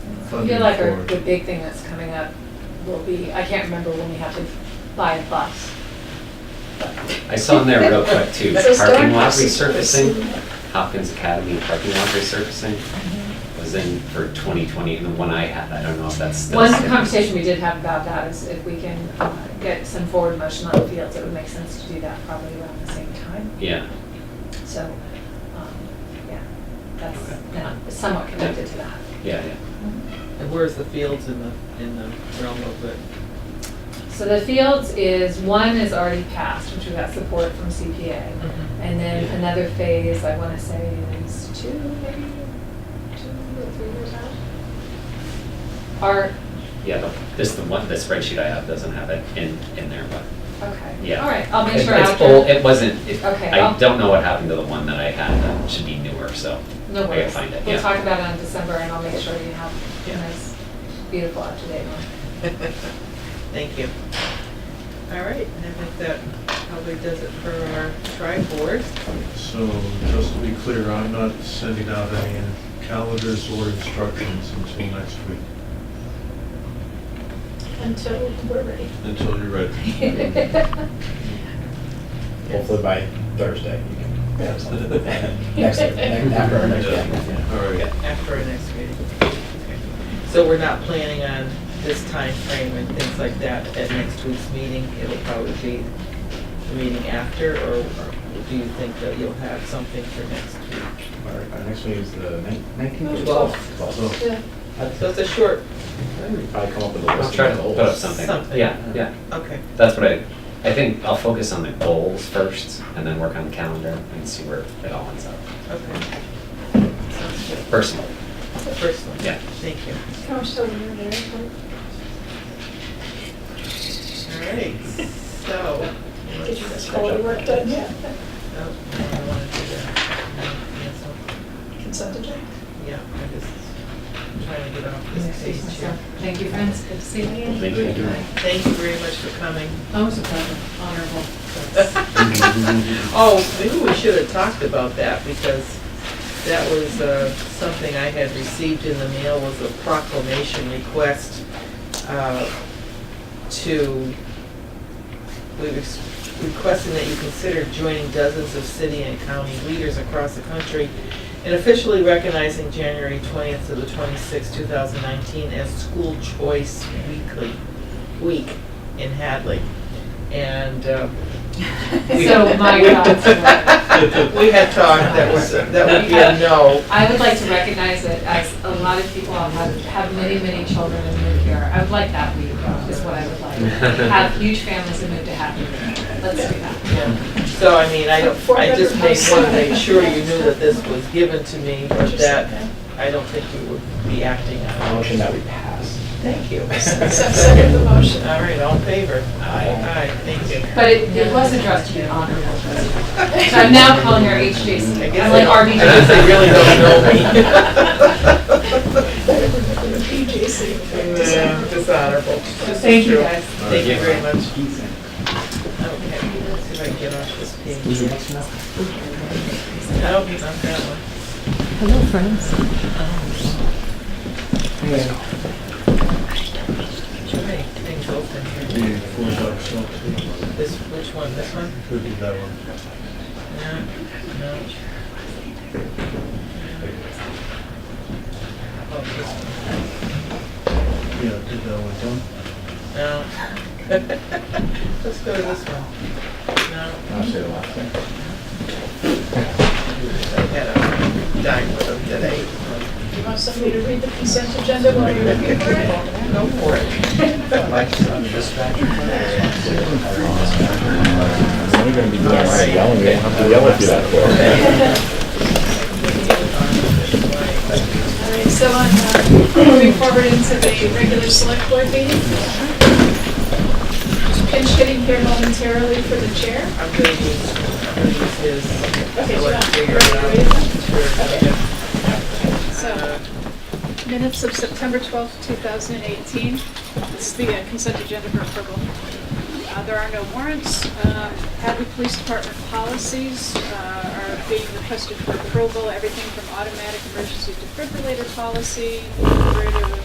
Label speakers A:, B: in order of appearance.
A: I
B: funding
A: feel like our,
B: for
A: the
B: it.
A: big thing that's coming up will be, I can't remember when we have to buy a bus.
C: I saw in there real quick too,
D: So stone
C: parking lot
D: houses.
C: resurfacing, Hopkins Academy parking lot resurfacing
B: Mm-hmm.
C: was in for 2020, and the one I had, I don't know if that's still.
A: One
C: sitting.
A: conversation we did have about that is if we can uh, get some forward motion on the fields, it would make sense to do that probably around the same time.
C: Yeah,
A: So, um, yeah,
C: Okay.
A: that's yeah, somewhat connected to that.
C: yeah, yeah.
E: And where's the fields in the, in the realm of it?
A: So the fields is, one is already passed, which we got support from CPA.
C: Mm-hmm.
A: And then
C: Yeah.
A: another phase, I want to say, is two, maybe, two or three years out. Are,
C: Yeah, the- this, the one, the spreadsheet I have doesn't have it in, in there, but
A: okay.
C: yeah.
A: All right, I'll make
C: It-
A: sure
C: it's old-
A: after.
C: It wasn't, it-
A: Okay,
C: I
A: I'll-
C: don't know what happened to the one that I had, that should be newer, so. I
A: No
C: gotta
A: worries.
C: find it,
A: We'll
C: yeah.
A: talk about it in December and I'll make sure you have a
C: Yeah.
A: nice, beautiful, up-to-date one.
E: Thank you. All right, and I think that probably does it for our tri-board.
B: So just to be clear, I'm not sending out any calendars or instructions until next week,
D: until we're ready.
B: until you're ready.
F: Hopefully by Thursday, you can have something. Next, next- after our next meeting.
B: All right.
E: After our next meeting. Okay. So we're not planning on this time frame and things like that at next week's meeting? It'll probably be the meeting after, or or do you think that you'll have something for next week?
F: Our, our next meeting is the nineteenth.
E: Twelve.
F: Twelve.
D: Yeah.
E: So it's a short,
F: Probably come up with a list.
C: I'll try to
F: of
C: put
F: goals.
C: up something,
E: Something.
C: yeah, yeah.
E: okay.
C: That's what I, I think I'll focus on the goals first, and then work on the calendar and see where it all ends up,
E: Okay. Sounds good.
C: personally,
E: The first one?
C: Yeah.
E: Thank you.
D: Can we still hear there?
E: All right, so.
D: Did you get all your work done yet?
E: Oh, no, I don't wanna do that. No, cancel.
D: Consent agenda?
E: Yeah, I'm just trying to get off this page here.
A: Thank you, friends. Good to see you.
C: Thank you.
E: Thank you very much for coming.
A: Always a pleasure, honorable.
E: Oh, maybe we should have talked about that because that was uh, something I had received in the mail was a proclamation request uh, to, we was requesting that you consider joining dozens of city and county leaders across the country and officially recognizing January 20th to the 26th, 2019 as School Choice Weekly, Week in Hadley. And uh,
A: So my God.
E: we had talked that was, that would be a no.
A: I would like to recognize that as a lot of people have, have many, many children and move here. I would like that week, is what I would like. Have huge families and move to happy. Week. Let's do that.
E: Yeah. So, I mean, I, I just made one, to make sure you knew that this was given to me, but that, I don't think you would be acting on. it.
F: Motion that we pass.
E: Thank you.
D: Second the motion.
E: All right, all in favor?
F: Aye.
E: Aye, thank you.
A: But it, it was addressed to an honorable president. So I'm now calling her
E: I
A: HJC.
E: guess
A: I'm like
E: they- I guess they
A: RBJ.
E: really don't know me.
D: PJC.
E: Yeah, Dishonorable.
A: Thank you,
E: True.
A: guys.
E: Thank you very much. Okay, let's see if I can get off this page. Nope, not that one. Too many things open here.
B: Be four bucks, so
E: This, which one, this one?
B: could be that one.
E: No, no. Oh, this one.
B: Yeah, did that one.
E: No. Let's go to this one. No,
F: I'll say the last thing.
E: I had a dime with them today.
D: You want somebody to read the consent agenda while you're looking for it?
E: Go for it.
F: You're gonna be yelling, you don't have to yell at you that far.
D: All right, so on, uh, moving forward into the regular select board meeting. Just pinch hitting here momentarily for the chair.
E: I'm gonna use, I'm gonna use his.
D: Okay,
E: so I can
D: so-
E: figure it out. Sure.
D: So, minutes of September 12th, 2018. This is the uh, consent agenda for approval. Uh, There are no warrants. Um, Hadley Police Department policies uh, are being requested for approval, everything from automatic emergency defibrillator policy, defibrillator